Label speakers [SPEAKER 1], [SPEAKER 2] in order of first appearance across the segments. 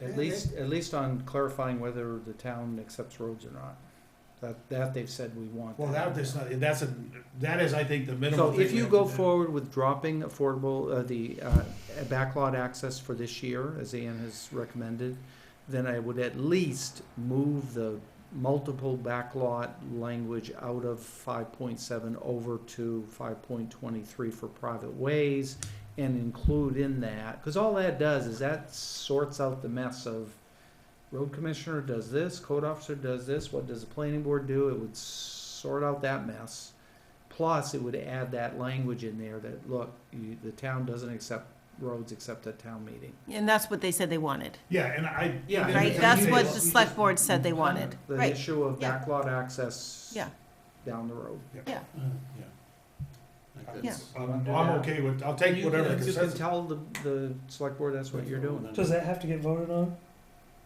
[SPEAKER 1] At least, at least on clarifying whether the town accepts roads or not. That, that they've said we want.
[SPEAKER 2] Well, that, that's, not- that's a, that is, I think, the minimum.
[SPEAKER 1] So
[SPEAKER 2] thing
[SPEAKER 1] if
[SPEAKER 2] we
[SPEAKER 1] you
[SPEAKER 2] have to
[SPEAKER 1] go
[SPEAKER 2] do.
[SPEAKER 1] forward with dropping affordable, uh, the, uh, backlot access for this year, as Ann has recommended, then I would at least move the multiple backlot language out of five point seven over to five point twenty-three for private ways and include in that, cause all that does is that sorts out the mess of road commissioner does this, code officer does this, what does the planning board do? It would sort out that mess. Plus, it would add that language in there that, look, you, the town doesn't accept roads except at town meeting.
[SPEAKER 3] And that's what they said they wanted,
[SPEAKER 2] Yeah, and I.
[SPEAKER 1] Yeah,
[SPEAKER 2] and
[SPEAKER 1] Right,
[SPEAKER 2] I
[SPEAKER 3] right?
[SPEAKER 2] think
[SPEAKER 3] That's
[SPEAKER 2] they-
[SPEAKER 3] what the select board said they wanted,
[SPEAKER 1] The
[SPEAKER 3] right?
[SPEAKER 1] issue of
[SPEAKER 3] yeah.
[SPEAKER 1] backlot access
[SPEAKER 3] Yeah.
[SPEAKER 1] down the road.
[SPEAKER 2] Uh, yeah.
[SPEAKER 4] Like
[SPEAKER 3] Yeah.
[SPEAKER 4] that's-
[SPEAKER 2] I'm, I'm okay with, I'll take
[SPEAKER 1] You-
[SPEAKER 2] whatever the
[SPEAKER 1] You can
[SPEAKER 2] consensus.
[SPEAKER 1] tell the, the select board that's what you're doing.
[SPEAKER 5] Does that have to get voted on?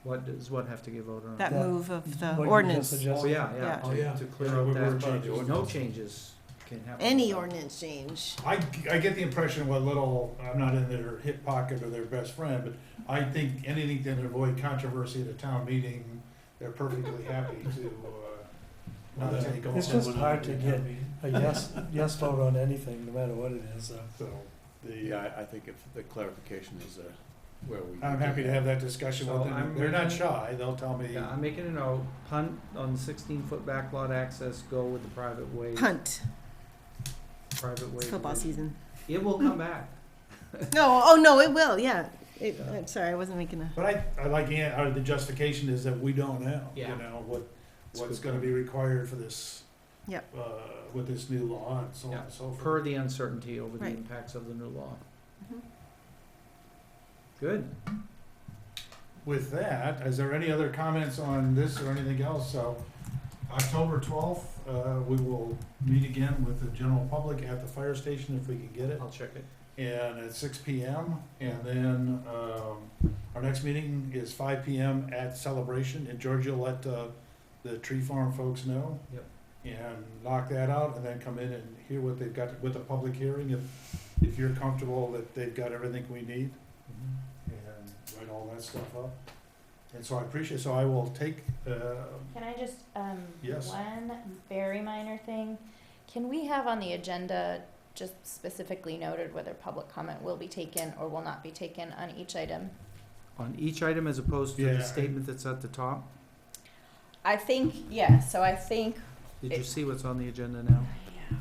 [SPEAKER 1] What does what have to get voted on?
[SPEAKER 3] That move of the
[SPEAKER 5] What you just
[SPEAKER 3] ordinance,
[SPEAKER 5] suggested?
[SPEAKER 1] Oh, yeah,
[SPEAKER 3] Yeah.
[SPEAKER 1] yeah.
[SPEAKER 2] Oh, yeah.
[SPEAKER 1] to- To clear
[SPEAKER 2] Yeah,
[SPEAKER 1] up
[SPEAKER 2] we're- we're
[SPEAKER 1] that,
[SPEAKER 2] changing
[SPEAKER 1] no
[SPEAKER 2] ordinance.
[SPEAKER 1] changes can happen.
[SPEAKER 3] any ordinance change.
[SPEAKER 2] I, I get the impression what little, I'm not in their hip pocket or their best friend, but I think anything that avoid controversy at a town meeting, they're perfectly happy to, uh, not take on.
[SPEAKER 5] It's just
[SPEAKER 2] someone
[SPEAKER 5] hard
[SPEAKER 2] at
[SPEAKER 5] to
[SPEAKER 2] a
[SPEAKER 5] get-
[SPEAKER 2] town meeting.
[SPEAKER 5] A yes, yes vote on anything, no matter what it is, uh. so.
[SPEAKER 2] So,
[SPEAKER 4] The, I, I think if the clarification is uh, where we.
[SPEAKER 2] I'm happy to have that discussion
[SPEAKER 1] So
[SPEAKER 2] with them.
[SPEAKER 1] I'm
[SPEAKER 2] They're not
[SPEAKER 1] making-
[SPEAKER 2] shy, they'll tell me.
[SPEAKER 1] Yeah, I'm making a note, punt on sixteen foot backlot access, go with the private way,
[SPEAKER 3] Punt,
[SPEAKER 1] private way.
[SPEAKER 3] it's football
[SPEAKER 1] division.
[SPEAKER 3] season.
[SPEAKER 1] It will come back.
[SPEAKER 3] No, oh, no, it will, yeah. It, I'm sorry, I wasn't making a,
[SPEAKER 2] But I, I like, Ann- uh, the justification is that we don't know, you
[SPEAKER 1] Yeah.
[SPEAKER 2] know, what,
[SPEAKER 1] That's
[SPEAKER 2] what's
[SPEAKER 1] good
[SPEAKER 2] gonna
[SPEAKER 1] point.
[SPEAKER 2] be required for this.
[SPEAKER 3] Yep.
[SPEAKER 2] Uh, with this new law and so on and so
[SPEAKER 1] per
[SPEAKER 2] forth.
[SPEAKER 1] the uncertainty over the
[SPEAKER 3] Right.
[SPEAKER 1] impacts of the new law.
[SPEAKER 6] Mm-hmm.
[SPEAKER 3] Mhm.
[SPEAKER 1] Good.
[SPEAKER 2] With that, is there any other comments on this or anything else? So, October twelfth, uh, we will meet again with the general public at the fire station if we can get it.
[SPEAKER 1] I'll check it.
[SPEAKER 2] And at six P M, and then, um, our next meeting is five P M at Celebration, and Georgia let, uh, the tree farm folks know.
[SPEAKER 1] Yep.
[SPEAKER 2] And lock that out, and then come in and hear what they've got, with the public hearing, if, if you're comfortable that they've got everything we need,
[SPEAKER 6] Mm-hmm.
[SPEAKER 2] and write all that stuff up. And so I appreciate, so I will take, uh,
[SPEAKER 6] Can I just, um,
[SPEAKER 2] Yes.
[SPEAKER 6] one very minor thing? Can we have on the agenda just specifically noted whether public comment will be taken or will not be taken on each item?
[SPEAKER 1] On each item as opposed to
[SPEAKER 2] Yeah.
[SPEAKER 1] the statement that's at the top?
[SPEAKER 6] I think, yeah, so I think,
[SPEAKER 1] Did you
[SPEAKER 6] It-
[SPEAKER 1] see what's on the agenda now?
[SPEAKER 6] yeah.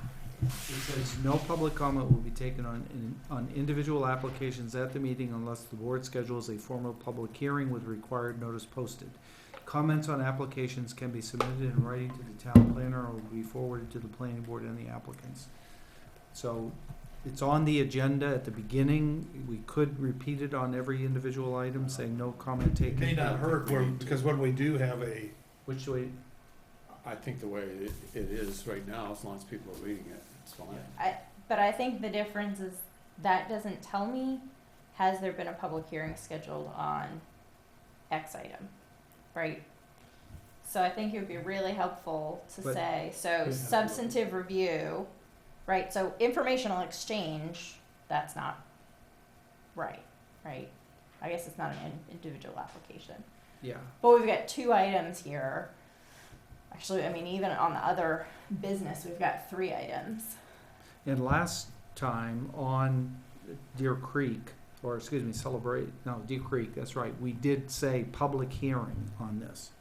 [SPEAKER 1] It says, no public comment will be taken on, in- on individual applications at the meeting unless the board schedules a formal public hearing with required notice posted. Comments on applications can be submitted in writing to the town planner or will be forwarded to the planning board and the applicants. So it's on the agenda at the beginning. We could repeat it on every individual item, saying no comment
[SPEAKER 2] it
[SPEAKER 1] taken.
[SPEAKER 2] may not hurt, where- because when we do have a,
[SPEAKER 1] Which way,
[SPEAKER 4] I think the way it, it is right now, as long as people are reading it, it's fine.
[SPEAKER 6] But I think the difference is that doesn't tell me, has there been a public hearing scheduled on X item, right? So I think it would be really helpful to
[SPEAKER 1] But-
[SPEAKER 6] say, so
[SPEAKER 4] Yeah.
[SPEAKER 6] substantive review, right, so informational exchange, that's not right, right? I guess it's not an in- individual application.
[SPEAKER 1] yeah.
[SPEAKER 6] But we've got two items here. Actually, I mean, even on the other business, we've got three items.
[SPEAKER 1] And last time on Deer Creek, or excuse me, Celebrate, no, Deer Creek, that's right, we did say public hearing on this.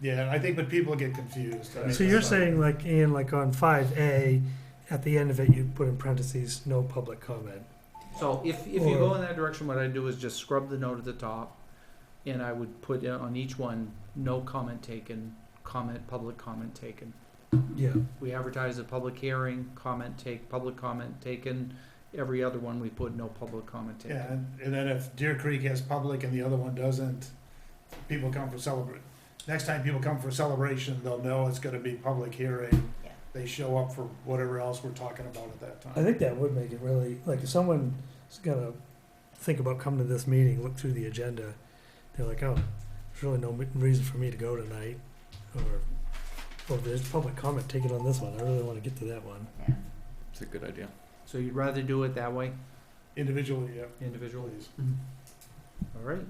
[SPEAKER 2] yeah, I think when people get confused. I mean,
[SPEAKER 5] So you're
[SPEAKER 2] that's not-
[SPEAKER 5] saying like, Ian, like on five A, at the end of it, you put in parentheses, no public comment.
[SPEAKER 1] So if, if you go in that direction, what I do is just scrub the note at the top, and I would put in on each one, no comment taken, comment, public comment taken.
[SPEAKER 5] Yeah.
[SPEAKER 1] We advertise a public hearing, comment take, public comment taken, every other one we put no public comment taken.
[SPEAKER 2] Yeah, and, and then if Deer Creek has public and the other one doesn't, people come for celebrate. Next time people come for celebration, they'll know it's gonna be public hearing.
[SPEAKER 6] Yeah.
[SPEAKER 2] They show up for whatever else we're talking about at that
[SPEAKER 5] I
[SPEAKER 2] time.
[SPEAKER 5] think that would make it really, like, if someone's gonna think about coming to this meeting, look through the agenda, they're like, oh, there's really no m- reason for me to go tonight, or, oh, there's public comment, take it on this one, I really wanna get to that one.
[SPEAKER 4] It's a good idea.
[SPEAKER 1] So you'd rather do it that way,
[SPEAKER 2] Individually, yeah,
[SPEAKER 1] individually?
[SPEAKER 2] please.
[SPEAKER 1] All right,